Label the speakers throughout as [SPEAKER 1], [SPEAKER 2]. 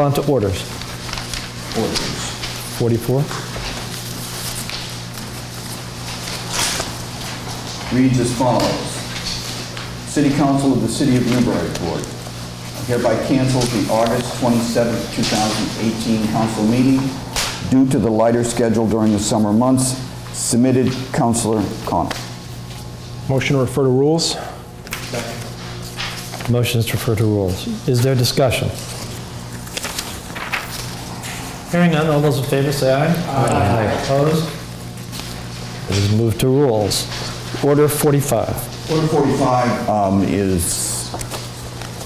[SPEAKER 1] On to orders.
[SPEAKER 2] orders.
[SPEAKER 1] 44?
[SPEAKER 2] Reads as follows. City Council of the City of Newburyport hereby cancels the August 27, 2018 council meeting due to the lighter schedule during the summer months. Submitted, Councilor Connell.
[SPEAKER 1] Motion to refer to rules? Motion is to refer to rules. Is there discussion? Hearing none, all those in favor say aye. Aye. Opposed? It is moved to rules. Order 45.
[SPEAKER 2] Order 45 um, is,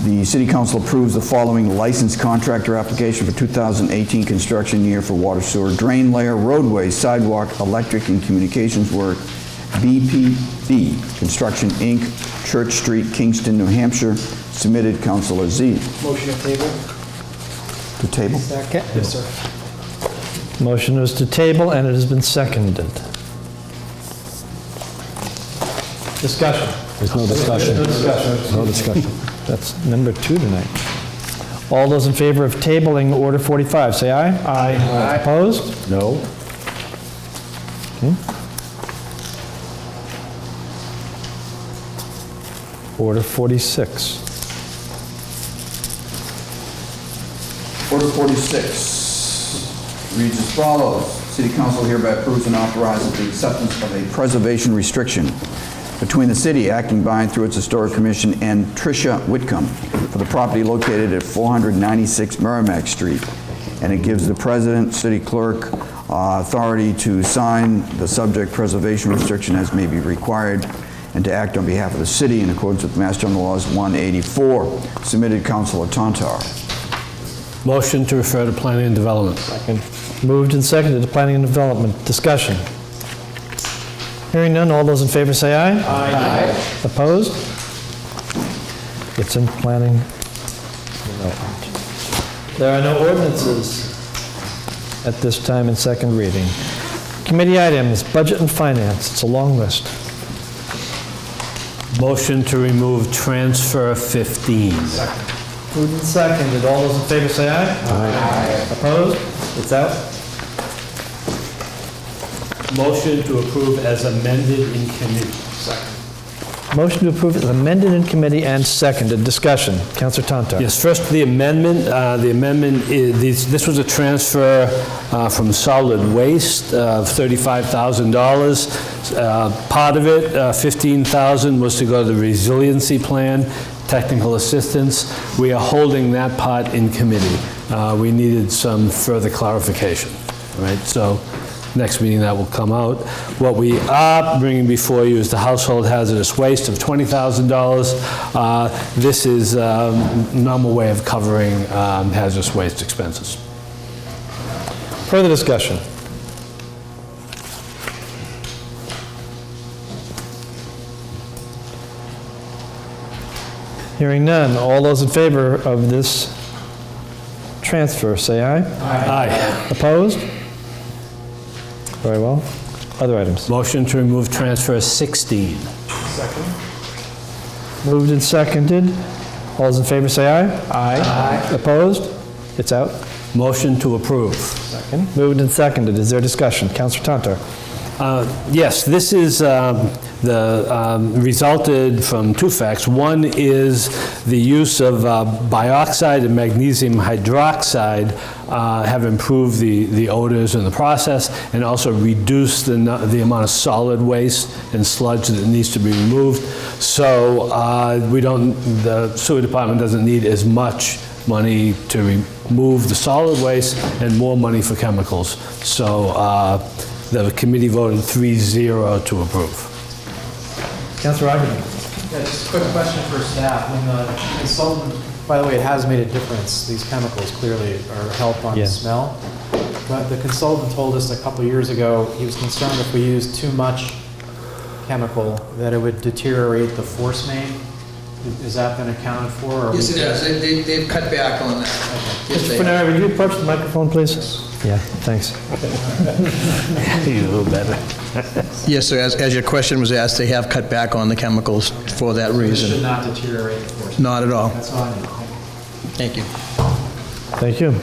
[SPEAKER 2] the city council approves the following licensed contractor application for 2018 construction year for water sewer drain layer, roadways, sidewalk, electric, and communications work, BPB Construction, Inc., Church Street, Kingston, New Hampshire, submitted Councilor Z.
[SPEAKER 3] Motion to table?
[SPEAKER 2] To table?
[SPEAKER 3] Second. Yes, sir.
[SPEAKER 1] Motion is to table, and it has been seconded. Discussion?
[SPEAKER 4] There's no discussion.
[SPEAKER 1] No discussion.
[SPEAKER 4] No discussion.
[SPEAKER 1] That's number two tonight. All those in favor of tabling Order 45, say aye. Aye. Opposed?
[SPEAKER 4] No?
[SPEAKER 1] Hmm? Order 46.
[SPEAKER 2] Order 46 reads as follows. City Council hereby approves and authorizes the acceptance of a preservation restriction between the city acting by and through its historic commission and Tricia Whitcomb for the property located at 496 Merrimack Street. And it gives the president, city clerk, uh, authority to sign the subject preservation restriction as may be required and to act on behalf of the city in accordance with Mass General Laws 184. Submitted, Councilor Tantar.
[SPEAKER 4] Motion to refer to planning and development. Second.
[SPEAKER 1] Moved and seconded to Planning and Development. Discussion. Hearing none, all those in favor say aye. Aye. Opposed? It's in Planning Development. There are no ordinances at this time in second reading. Committee items, Budget and Finance. It's a long list.
[SPEAKER 4] Motion to remove transfer 15.
[SPEAKER 1] Moved and seconded. All those in favor say aye. Aye. Opposed? It's out.
[SPEAKER 4] Motion to approve as amended in committee.
[SPEAKER 1] Motion to approve is amended in committee and seconded. Discussion. Counselor Tantar.
[SPEAKER 4] Yes, first, the amendment, uh, the amendment, i- this this was a transfer uh, from solid waste of $35,000. Uh, Part of it, uh, $15,000, was to go to the resiliency plan, technical assistance. We are holding that part in committee. Uh, We needed some further clarification, all right? So next meeting that will come out. What we are bringing before you is the household hazardous waste of $20,000. Uh, This is um, normal way of covering um, hazardous waste expenses.
[SPEAKER 1] Further discussion? Hearing none. All those in favor of this transfer, say aye.
[SPEAKER 4] Aye.
[SPEAKER 1] Opposed? Very well. Other items?
[SPEAKER 4] Motion to remove transfer 16.
[SPEAKER 1] Moved and seconded. All those in favor, say aye. Aye. Opposed? It's out.
[SPEAKER 4] Motion to approve.
[SPEAKER 1] Second. Moved and seconded. Is there discussion? Counselor Tantar?
[SPEAKER 4] Uh, Yes, this is um, the, um, resulted from two facts. One is the use of uh, bioxide and magnesium hydroxide uh, have improved the the odors in the process and also reduced the nu- the amount of solid waste and sludge that needs to be removed. So uh, we don't, the sewer department doesn't need as much money to remove the solid waste and more money for chemicals. So uh, the committee voted 3-0 to approve.
[SPEAKER 1] Counselor Ivory?
[SPEAKER 3] Yeah, just a quick question for staff. When the consultant, by the way, it has made a difference, these chemicals clearly are help on
[SPEAKER 1] Yeah.
[SPEAKER 3] smell. But the consultant told us a couple years ago, he was concerned if we used too much chemical, that it would deteriorate the force main. Is that been accounted for? or we-
[SPEAKER 5] Yes, it has. They- They, they've cut back on that. Yes, they
[SPEAKER 1] Mr.
[SPEAKER 5] have.
[SPEAKER 1] Fenner, would you approach the microphone, please? Yeah, thanks.
[SPEAKER 5] Yes, so as, as your question was asked, they have cut back on the chemicals for that
[SPEAKER 3] It should
[SPEAKER 5] reason.
[SPEAKER 3] not deteriorate the force. main.
[SPEAKER 5] Not at all.
[SPEAKER 3] That's all I need. Thank you.
[SPEAKER 5] Thank you.
[SPEAKER 1] Thank you.